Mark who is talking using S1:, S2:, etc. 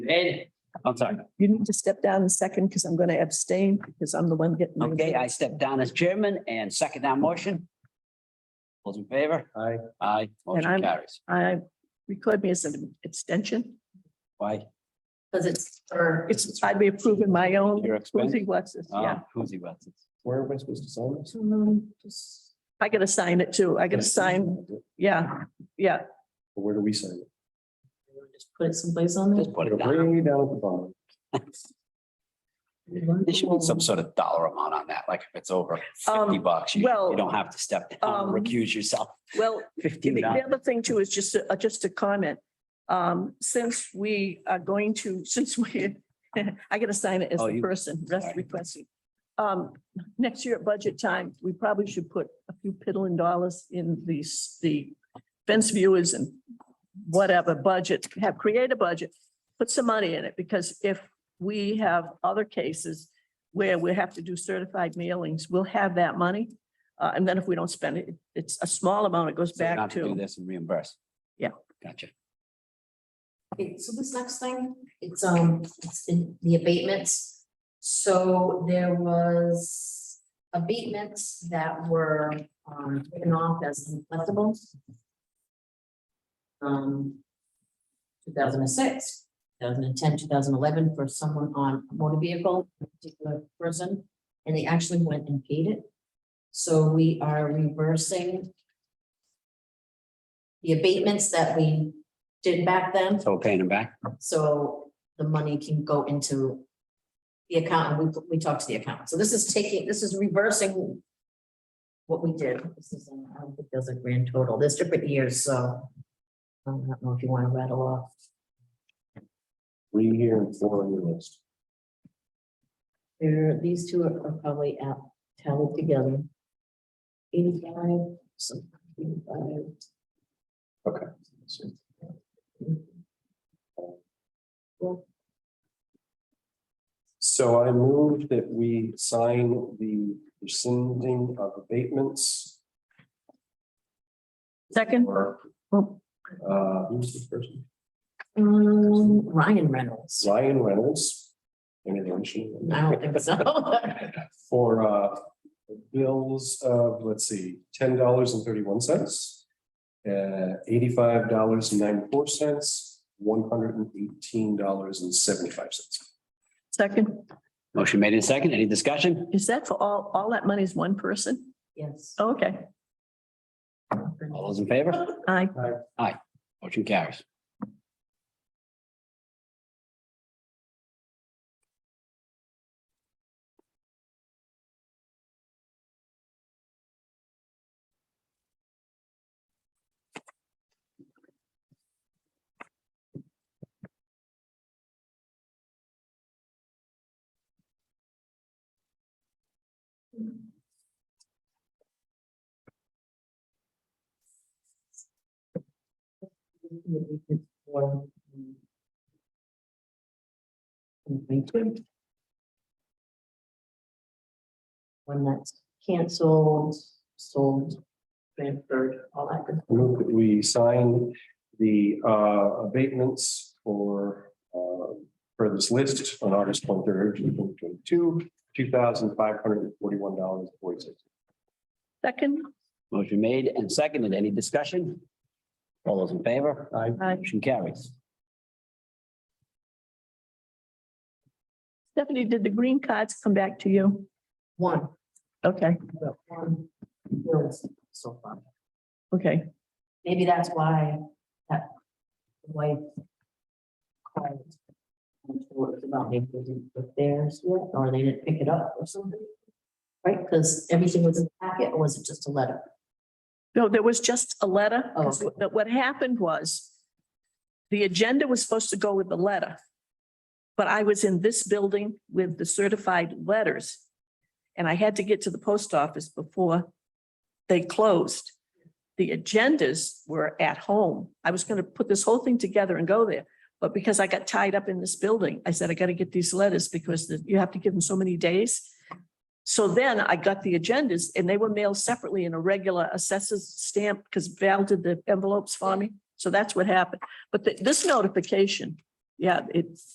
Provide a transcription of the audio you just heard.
S1: Ed, I'm sorry.
S2: You need to step down a second because I'm going to abstain because I'm the one getting.
S1: Okay, I step down as chairman and second that motion. Those in favor? Aye. Aye, motion
S2: I'm-
S1: carries.
S2: I record me as an extension.
S1: Why?
S2: Because it's. It's, I'd be approving my own.
S1: Your expense?
S2: Who's what's this?
S1: Uh,
S2: Yeah. Um,
S1: Who's he with?
S3: Where am I supposed to sign this?
S2: I gotta sign it too. I gotta sign, yeah, yeah.
S3: Where do we sign it?
S2: Just Put it someplace on
S1: Just put it down.
S3: Bring me down at the bottom.
S1: There should be some sort of dollar amount on that, like if it's over fifty
S2: Um,
S1: bucks, you
S2: well,
S1: you don't have to step down,
S2: um,
S1: recuse yourself.
S2: well,
S1: Fifteen
S2: The-
S1: dollars.
S2: The other thing too is just, a- uh, just a comment. Um, since we are going to, since we, I gotta sign it as
S1: Oh,
S2: the
S1: you-
S2: person rest
S1: sorry.
S2: requesting. Um, next year at budget time, we probably should put a few piddling dollars in these, the fence viewers and whatever budget, have, create a budget, put some money in it, because if we have other cases where we have to do certified mailings, we'll have that money. Uh, and then if we don't spend it, it's a small amount, it goes
S1: So you don't
S2: back
S1: have to do
S2: to,
S1: this and reimburse.
S2: Yeah.
S1: Gotcha.
S4: Okay, so this next thing, it's um, it's in the abatements. So there was abatements that were um written off as uncollectible. Um. Two thousand and six, two thousand and ten, two thousand and eleven for someone on a motor vehicle, a particular person, and they actually went and paid it. So we are reversing. The abatements that we did back then.
S1: So we're paying him back.
S4: So the money can go into the account and we, we talk to the account. So this is taking, this is reversing what we did. This is, um, I don't think there's a grand total. There's different years, so I don't know if you want to rattle off.
S3: Three here and four on your list.
S4: There, these two are are probably out, tallied together. Eighty-five, some, eighty-five.
S3: Okay. So So I move that we sign the rescinding of abatements
S2: second,
S3: or
S2: oh,
S3: uh, who's the person?
S4: Um, Ryan Reynolds.
S3: Ryan Reynolds. Any mention?
S4: I don't think so.
S3: For uh, bills of, let's see, ten dollars and thirty-one cents. Uh, eighty-five dollars and ninety-four cents, one hundred and eighteen dollars and seventy-five cents.
S2: second,
S1: Motion made in second. Any discussion?
S2: is that for all, all that money is one person?
S4: Yes.
S2: Okay,
S1: All those in favor?
S2: I,
S1: Motion carries.
S4: Thank you. When that's canceled, sold, transferred, all that good.
S3: I Move that we sign the uh, abatements for uh, for this list on August twenty-third, twenty twenty-two, two thousand five hundred and forty-one dollars forty-six.
S2: second,
S1: Motion made and seconded. Any discussion? All those in favor?
S3: I
S2: I,
S1: Motion carries.
S2: Stephanie, did the green cards come back to you?
S4: One,
S2: Okay,
S4: but one, was so far.
S2: okay,
S4: Maybe that's why that wife called. and told us about maybe they didn't put theirs yet, or they didn't pick it up or something. Right, because everything was in the packet, or was it just a letter?
S2: no, there was just a letter,
S4: Oh,
S2: 'cause
S4: okay.
S2: what what happened was the agenda was supposed to go with the letter. But I was in this building with the certified letters. And I had to get to the post office before they closed. The agendas were at home. I was gonna put this whole thing together and go there. But because I got tied up in this building, I said, I gotta get these letters because the- you have to give them so many days. So then I got the agendas and they were mailed separately in a regular assessors stamp because Val did the envelopes for me. So that's what happened. But th- this notification, yeah, it